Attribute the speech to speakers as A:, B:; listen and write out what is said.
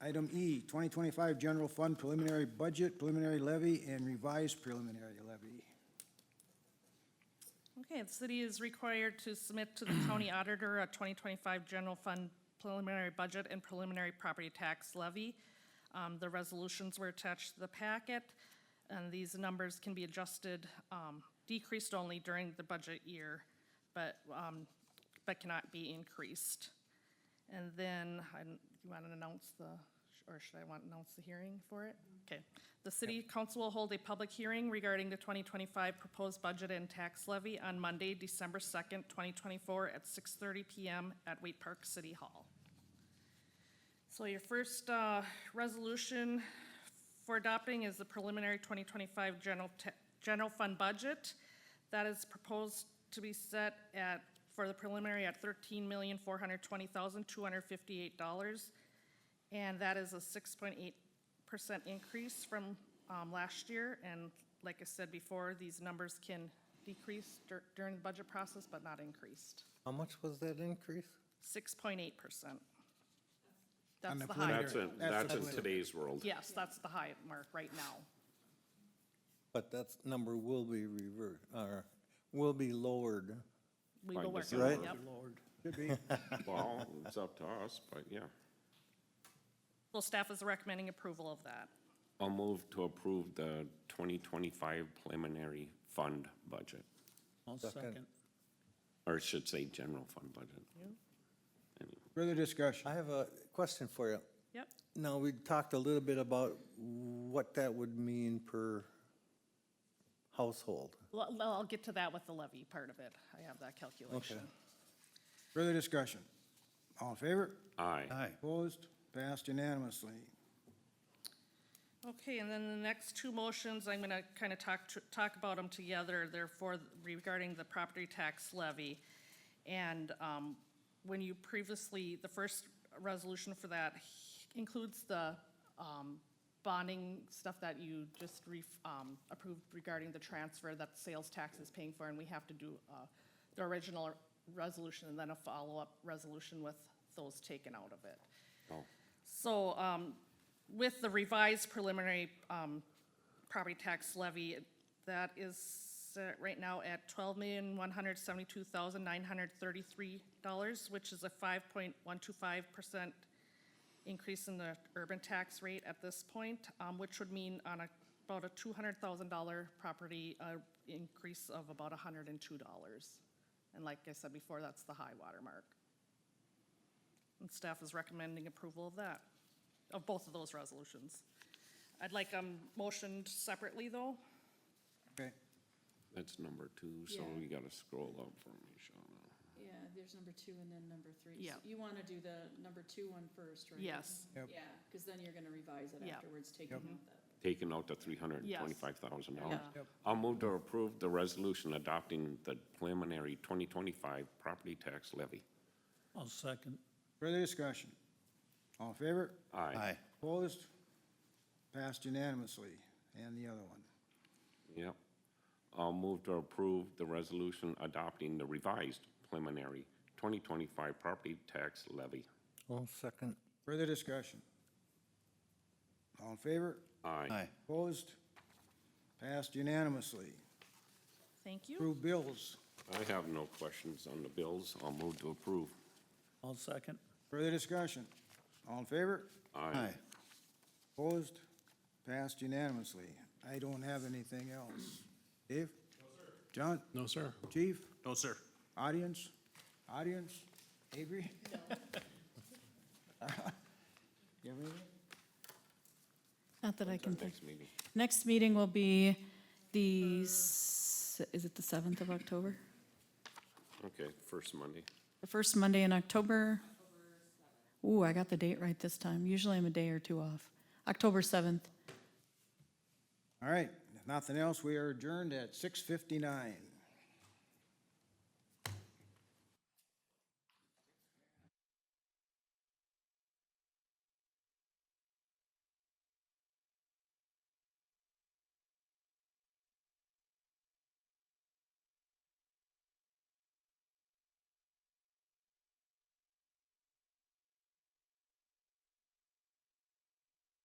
A: Item E, 2025 General Fund Preliminary Budget, Preliminary Levy, and Revised Preliminary Levy.
B: Okay, the city is required to submit to the county auditor a 2025 general fund preliminary budget and preliminary property tax levy. Um, The resolutions were attached to the packet, and these numbers can be adjusted, um, decreased only during the budget year, but, um, but cannot be increased. And then, I, don't- you want to announce the, or should I want to announce the hearing for it? Okay. The city council will hold a public hearing regarding the 2025 proposed budget and tax levy on Monday, December 2nd, 2024, at 6:30 PM at Wait Park City Hall. So your first uh, resolution for adopting is the preliminary 2025 general, ta- general fund budget. That is proposed to be set at, for the preliminary at $13,420,258. And that is a 6.8% increase from um, last year. And like I said before, these numbers can decrease dur- during the budget process, but not increased.
C: How much was that increase?
B: 6.8%.
A: On
B: That's
A: the
B: the high.
A: preliminary.
D: That's in,
A: That's
D: that's in
A: the-
D: today's world.
B: Yes, that's the high mark right now.
C: But that number will be reversed, or will be lowered.
B: We
D: Fine,
B: will work
D: just
B: on
D: lower
A: Should
B: it, yep.
D: it.
A: be.
D: Well, it's up to us, but yeah.
B: Well, staff is recommending approval of that.
D: I'll move to approve the 2025 preliminary fund budget,
E: I'll
C: Second.
E: second.
D: or I should say general fund budget. Anyway.
A: Further
C: I
A: discussion?
C: have a question for you.
B: Yep,
C: Now, we talked a little bit about what that would mean per household.
B: well, well, I'll get to that with the levy part of it. I have that calculation.
A: Further discussion? All in favor?
D: Aye.
A: Opposed? Passed unanimously.
B: Okay, and then the next two motions, I'm gonna kind of talk, to- talk about them together, therefore regarding the property tax levy. And um, when you previously, the first resolution for that includes the um, bonding stuff that you just re- um, approved regarding the transfer that sales tax is paying for, and we have to do uh, the original resolution and then a follow-up resolution with those taken out of it.
D: Oh,
B: So um, with the revised preliminary um, property tax levy, that is set right now at $12,172,933, which is a 5.125% increase in the urban tax rate at this point, um, which would mean on a- about a $200,000 property, uh, increase of about $102. And like I said before, that's the high water mark. And staff is recommending approval of that, of both of those resolutions. I'd like them motioned separately, though.
A: Okay.
D: that's number two, so
F: Yeah.
D: we gotta scroll up for me, Shawna.
F: Yeah, there's number two and then number three. So
B: Yeah.
F: You want to do the number two one first, right?
B: Yes.
A: Yep.
F: Yeah, because then you're going to revise it
B: Yeah.
F: afterwards, taking out that.
D: Taking out the three hundred and twenty-five thousand dollars.
B: Yeah.
A: Yep.
D: I'll move to approve the resolution adopting the preliminary twenty twenty-five property tax levy.
E: I'll second.
A: Further discussion? All in favor?
D: Aye.
A: Opposed? Passed unanimously. And the other one.
D: Yep. I'll move to approve the resolution adopting the revised preliminary 2025 property tax levy.
C: One second.
A: Further discussion? All in favor?
D: Aye.
A: Opposed? Passed unanimously.
B: Thank you.
A: Approve bills.
D: I have no questions on the bills. I'll move to approve.
E: I'll second.
A: Further discussion? All in favor?
D: Aye.
A: Opposed? Passed unanimously. I don't have anything else. Dave? No, sir. John?
G: No, sir.
A: Chief?
G: No, sir.
A: Audience? Audience? Avery? You have anything?
F: Not that I can think.
D: Next meeting.
F: Next meeting will be the, s- is it the 7th of October?
D: Okay, first Monday.
F: The first Monday in October? Ooh, I got the date right this time. Usually I'm a day or two off. October 7th.
A: All right, if nothing else, we are adjourned at six fifty-nine.